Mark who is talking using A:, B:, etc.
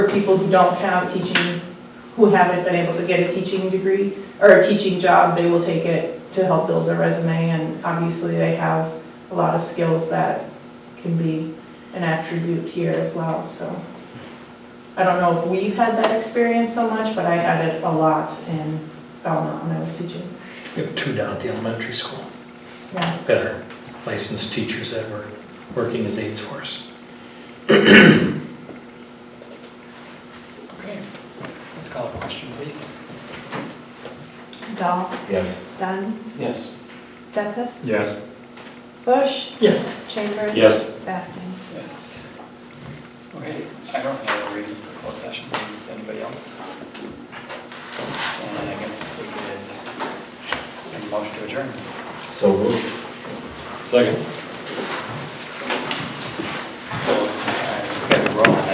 A: people who don't have teaching, who haven't been able to get a teaching degree or a teaching job, they will take it to help build their resume, and obviously they have a lot of skills that can be an attribute here as well, so. I don't know if we've had that experience so much, but I had it a lot in Belmont when I was teaching.
B: We have two down at the elementary school
A: Yeah,
B: that are licensed teachers that were working as aides for us.
C: Okay, let's call a question, please.
D: Dahl,
E: Yes.
D: Dunn,
C: Yes.
D: Stefas,
E: Yes.
D: Bush,
B: Yes.
D: Chambers.
E: Yes.
D: Basting.
C: Yes. Okay, I don't have a reason for closed session, does anybody else? And I guess we could, make a motion to adjourn.
E: So moved.
F: Second.